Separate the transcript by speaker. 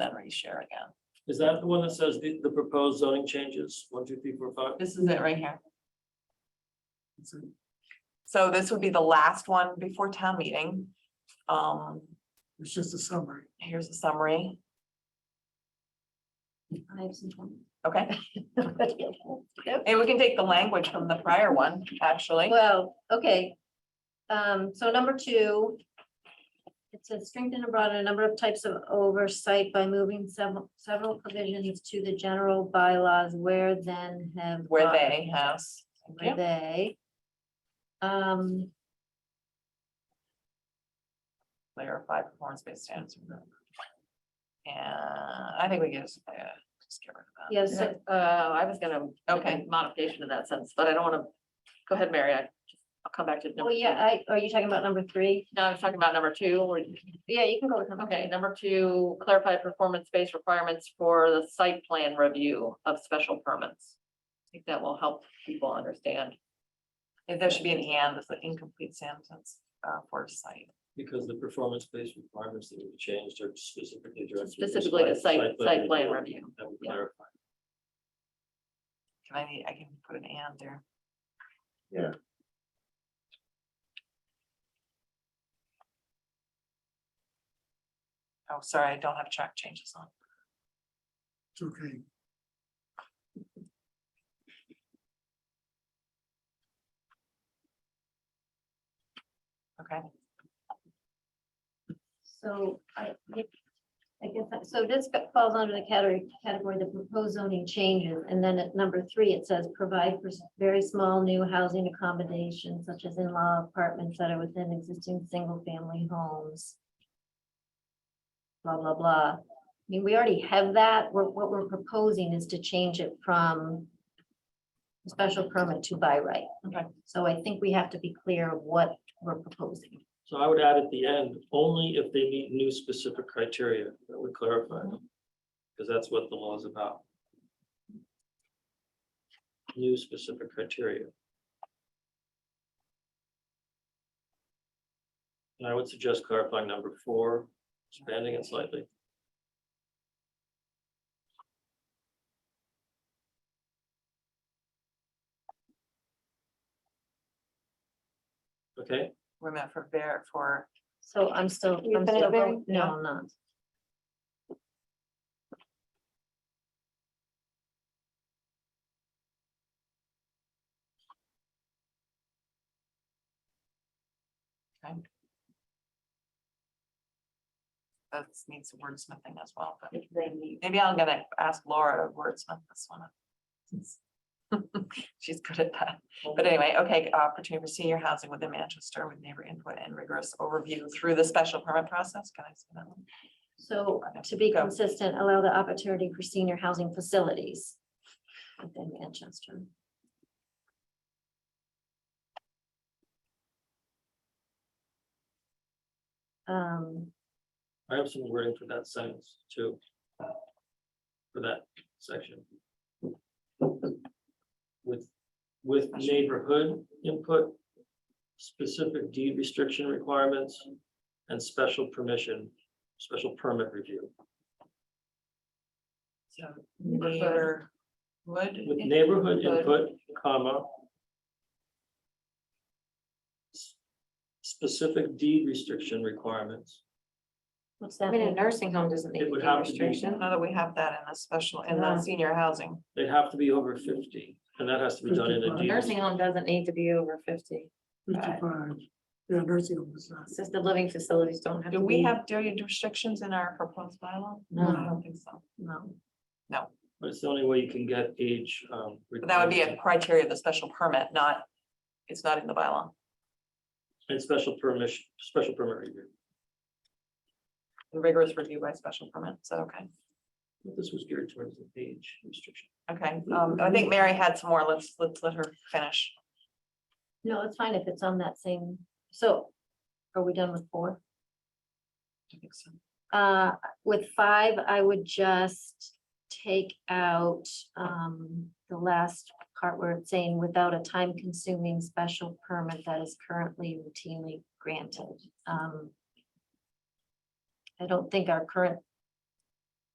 Speaker 1: then reshare again.
Speaker 2: Is that the one that says the, the proposed zoning changes, one, two, three, four, five?
Speaker 1: This is it right here. So this would be the last one before town meeting. Um,
Speaker 3: It's just a summary.
Speaker 1: here's a summary, okay? And we can take the language from the prior one, actually.
Speaker 4: Well, okay. Um, so number two. It says strengthen and broaden a number of types of oversight by moving several, several provisions to the general bylaws where then have.
Speaker 1: Where
Speaker 4: gone.
Speaker 1: they have.
Speaker 4: Where they. Um,
Speaker 1: clarify performance-based standards. And I think we can just, yeah, just get rid of that.
Speaker 4: yes,
Speaker 5: Uh, I was gonna. make a
Speaker 1: Okay.
Speaker 5: Modification of that sentence, but I don't wanna, go ahead, Mary, I, I'll come back to. number
Speaker 4: oh yeah,
Speaker 5: two.
Speaker 4: I, are you talking about number three?
Speaker 5: No, I was talking about number two, or-
Speaker 4: Yeah, you can go with number.
Speaker 5: okay, number two, clarify performance-based requirements for the site plan review of special permits. I think that will help people understand.
Speaker 1: If There should be an and, it's an incomplete sentence, uh, for site.
Speaker 2: Because the performance-based requirements that we changed are specifically directed. to
Speaker 5: Specifically the site, site plan
Speaker 2: review.
Speaker 5: review.
Speaker 2: That would
Speaker 5: yeah.
Speaker 2: clarify.
Speaker 1: Can I, need- I can put an and there.
Speaker 3: Yeah.
Speaker 1: Oh, sorry, I don't have track changes on.
Speaker 3: It's okay.
Speaker 1: Okay,
Speaker 4: So I, I guess, that- so this falls under the category, category, the proposed zoning changes. And then at number three, it says provide for s- very small new housing accommodations such as in-law apartments that are within existing single-family homes. Blah, blah, blah. I mean, we already have that. We're- What we're proposing is to change it from special permit to by right.
Speaker 1: Okay.
Speaker 4: So I think we have to be clear of what we're proposing.
Speaker 2: So I would add at the end, only if they meet new specific criteria, that would clarify them. Because that's what the law is about. New specific criteria. And I would suggest clarifying number four, expanding it slightly. Okay?
Speaker 1: we're meant for there for,
Speaker 4: So I'm still,
Speaker 5: You
Speaker 4: I'm
Speaker 5: finished,
Speaker 4: still,
Speaker 5: Mary?
Speaker 4: vote- no, I'm not.
Speaker 1: that needs wordsmithing as well, but maybe I'm gonna ask Laura to wordsmith this one. up. She's good at that. But anyway, okay, opportunity for senior housing within Manchester with neighbor input and rigorous overview through the special permit process. Can I say that one?
Speaker 4: So to be
Speaker 1: Go.
Speaker 4: consistent, allow the opportunity for senior housing facilities within Manchester. Um,
Speaker 2: I have some wording for that sentence too. For that section. With, with neighborhood input. Specific deed restriction requirements and special permission, special permit review.
Speaker 1: So neighbor would.
Speaker 2: With neighborhood input, comma. s- Specific deed restriction requirements.
Speaker 4: what's that mean?
Speaker 5: nursing home doesn't
Speaker 2: It would have to be,
Speaker 1: Now that we have that in the special, in the
Speaker 5: Yeah.
Speaker 1: senior housing,
Speaker 2: they'd have to be over fifty, and that has to be done in a deed.
Speaker 3: Nursing
Speaker 5: home doesn't need to be over fifty.
Speaker 3: Fifty-five, yeah, nursing home is not.
Speaker 5: Assisted living facilities don't have
Speaker 1: do we have, do you restrictions in our proposed bylaw? I don't think so.
Speaker 4: No,
Speaker 2: But it's the only way you can get age. um,
Speaker 1: But that would be a
Speaker 2: requirement.
Speaker 1: criteria of the special permit, not, it's not in the bylaw.
Speaker 2: And special permission, special permit review.
Speaker 1: Rigorous review by special permit, so, okay,
Speaker 2: But This was geared towards the age restriction.
Speaker 1: okay, um, I think Mary had some more, let's, let's let her finish.
Speaker 4: no, it's fine if it's on that same, so are we done with four?
Speaker 1: I think so.
Speaker 4: Uh, with five, I would just take out, um, the last part where it's saying without a time consuming special permit that is currently routinely granted. Um. I don't think our current